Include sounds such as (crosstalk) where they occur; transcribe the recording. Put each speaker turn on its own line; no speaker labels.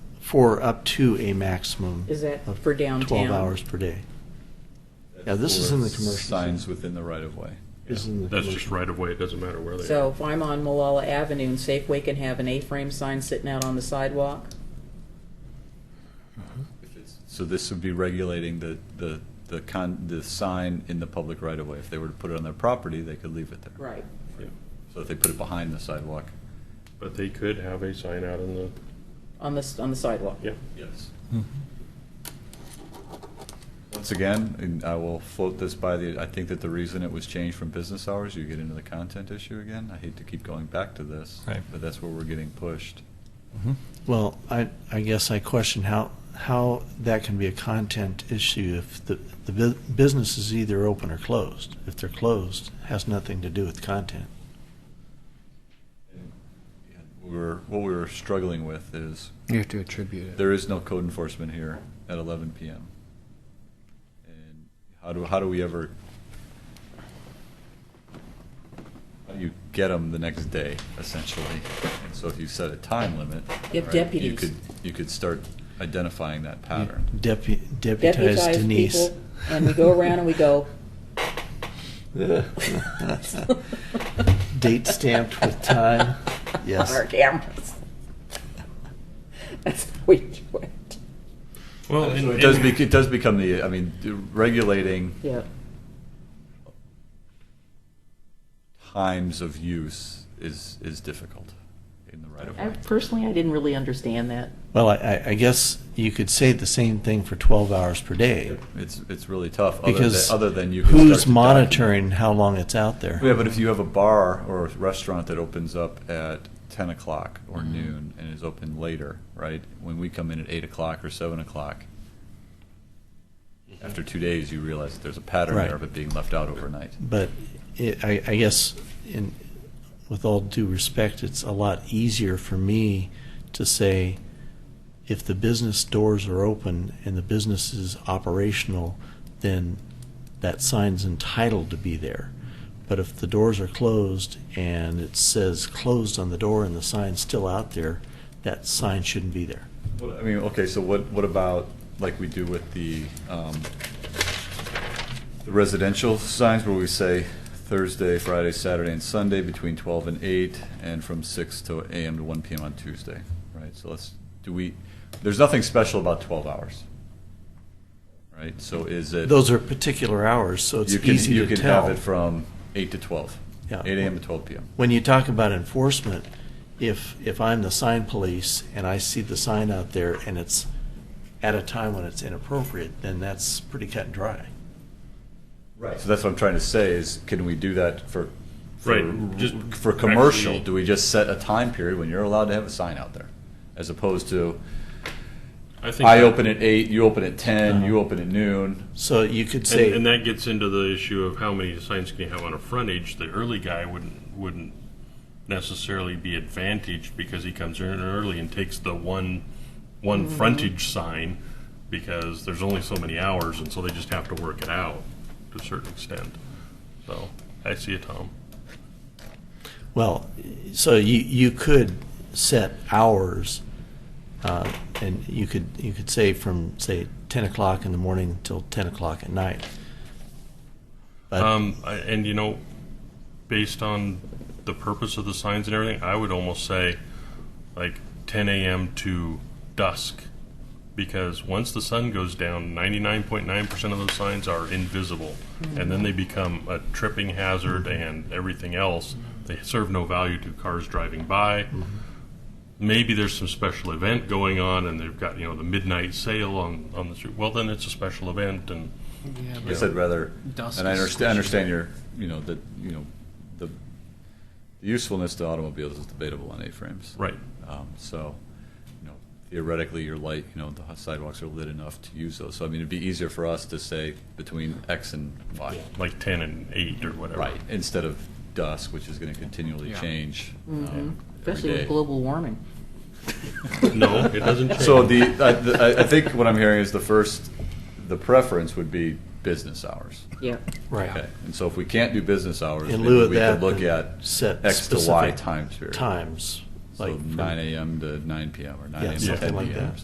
for up to a maximum
Is that
of
for downtown?
12 hours per day. Yeah, this is in the commercial zone.
Signs within the right of way.
This is in the
That's just
commercial.
right of way, it doesn't matter where they are.
So if I'm on Malala Avenue and Safeway can have an A-frame sign sitting out on the sidewalk?
Mm-hmm.
So this would be regulating the, the, the con, the sign in the public right of way. If they were to put it on their property, they could leave it there.
Right.
Yeah.
So if they put it behind the sidewalk.
But they could have a sign out in the,
On the, s- on the sidewalk?
yeah.
Yes.
Mm-hmm.
Once again, and I will float this by the, I think that the reason it was changed from business hours, you get into the content issue again. I hate to keep going back to this.
Right.
But that's where we're getting pushed.
Mm-hmm.
Well, I, I guess I question how, how that can be a content issue if the, the bu- business is either open or closed. If they're closed, it has nothing to do with content.
We were, what we were struggling with is,
You have to attribute it.
there is no code enforcement here at eleven PM. And how do, how do we ever, how do you get them the next day, essentially? And so if you set a time limit.
You have
right, You
deputies.
could, you could start identifying that pattern.
Depu- Deputize
Deputize
Denise.
people, and we go around and we go.
Date stamped with time. Yes.
On our cameras. That's how we do it.
Well,
So It does, bec- it does become the, I mean, regulating
Yeah.
times of use is, is difficult in the right of
I,
way.
personally, I didn't really understand that.
(laughs) Well, I- I, I guess you could say the same thing for 12 hours per day.
It's, it's really tough, other than,
Because
other than you. can start
who's
to document.
monitoring how long it's out there?
Yeah, but if you have a bar or a restaurant that opens up at ten o'clock or
Mm-hmm.
noon and is open later, right? When we come in at eight o'clock or seven o'clock, after two days, you realize that there's a pattern
Mm-hmm. Right.
there of it being left out overnight.
But it, I, I guess, in, with all due respect, it's a lot easier for me to say if the business doors are open and the business is operational, then that sign's entitled to be there. But if the doors are closed and it says closed on the door and the sign's still out there, that sign shouldn't be there.
What- I mean, okay, so what, what about, like we do with the, um, the residential signs where we say Thursday, Friday, Saturday, and Sunday between twelve and eight, and from six to AM to one PM on Tuesday, right? So let's, do we, there's nothing special about twelve hours, right? So is it?
Those are particular hours, so it's
you can-
easy to tell.
You can have it from eight to twelve.
Yeah.
Eight AM to twelve PM.
when you talk about enforcement, if, if I'm the sign police and I see the sign out there and it's at a time when it's inappropriate, then that's pretty cut and dry.
Right. So that's what I'm trying to say is, can we do that for? for-
Right, just
For commercial,
actually-
do we just set a time period when you're allowed to have a sign out there? As opposed to,
think Uh-huh.
I
that-
open at eight, you open at ten, you open at noon.
So you could
And,
say,
and that gets into the issue of how many signs can you have on a frontage. The early guy wouldn't wouldn't necessarily be advantaged because he comes in early and takes the one one frontage sign because there's only so many hours, and so they just have to work it out to a certain extent. So I see it, Tom.
well, so you, you could set hours, uh, and you could, you could say from, say, ten o'clock in the morning till ten o'clock at night. But-
Um, I, and you know, based on the purpose of the signs and everything, I would almost say like 10 a.m. to dusk, because once the sun goes down, 99.9% of those signs are invisible, and then they become a tripping hazard and everything else. They serve no value to cars driving by. Maybe there's some special event going on, and they've got you know the midnight sale on on the street. Well, then it's a special event, and
Yeah,
I guess I'd rather,
Dusk
and I
is
understand,
squishy.
understand your, you know, that, you know, the the usefulness to automobiles is debatable on A-frames.
right.
Um, So, you know, theoretically, your light, you know, the sidewalks are lit enough to use those. So I mean, it'd be easier for us to say between X and Y.
like 10 and 8 or whatever.
Right, instead of dusk, which is going to continually
Yeah.
change um, every
Mm-hmm. Especially with
day.
global warming.
No, it doesn't change.
So the, I- the- I, I think what I'm hearing is the first, the preference would be business hours.
Yeah.
Okay, and so if we can't do business hours,
In
maybe
lieu of
we
that,
could look
then
at
set
X to Y
specific
time period.
times,
So
like from-
nine AM to nine PM or nine
Yeah,
AM to
something
ten
like
PM.
that.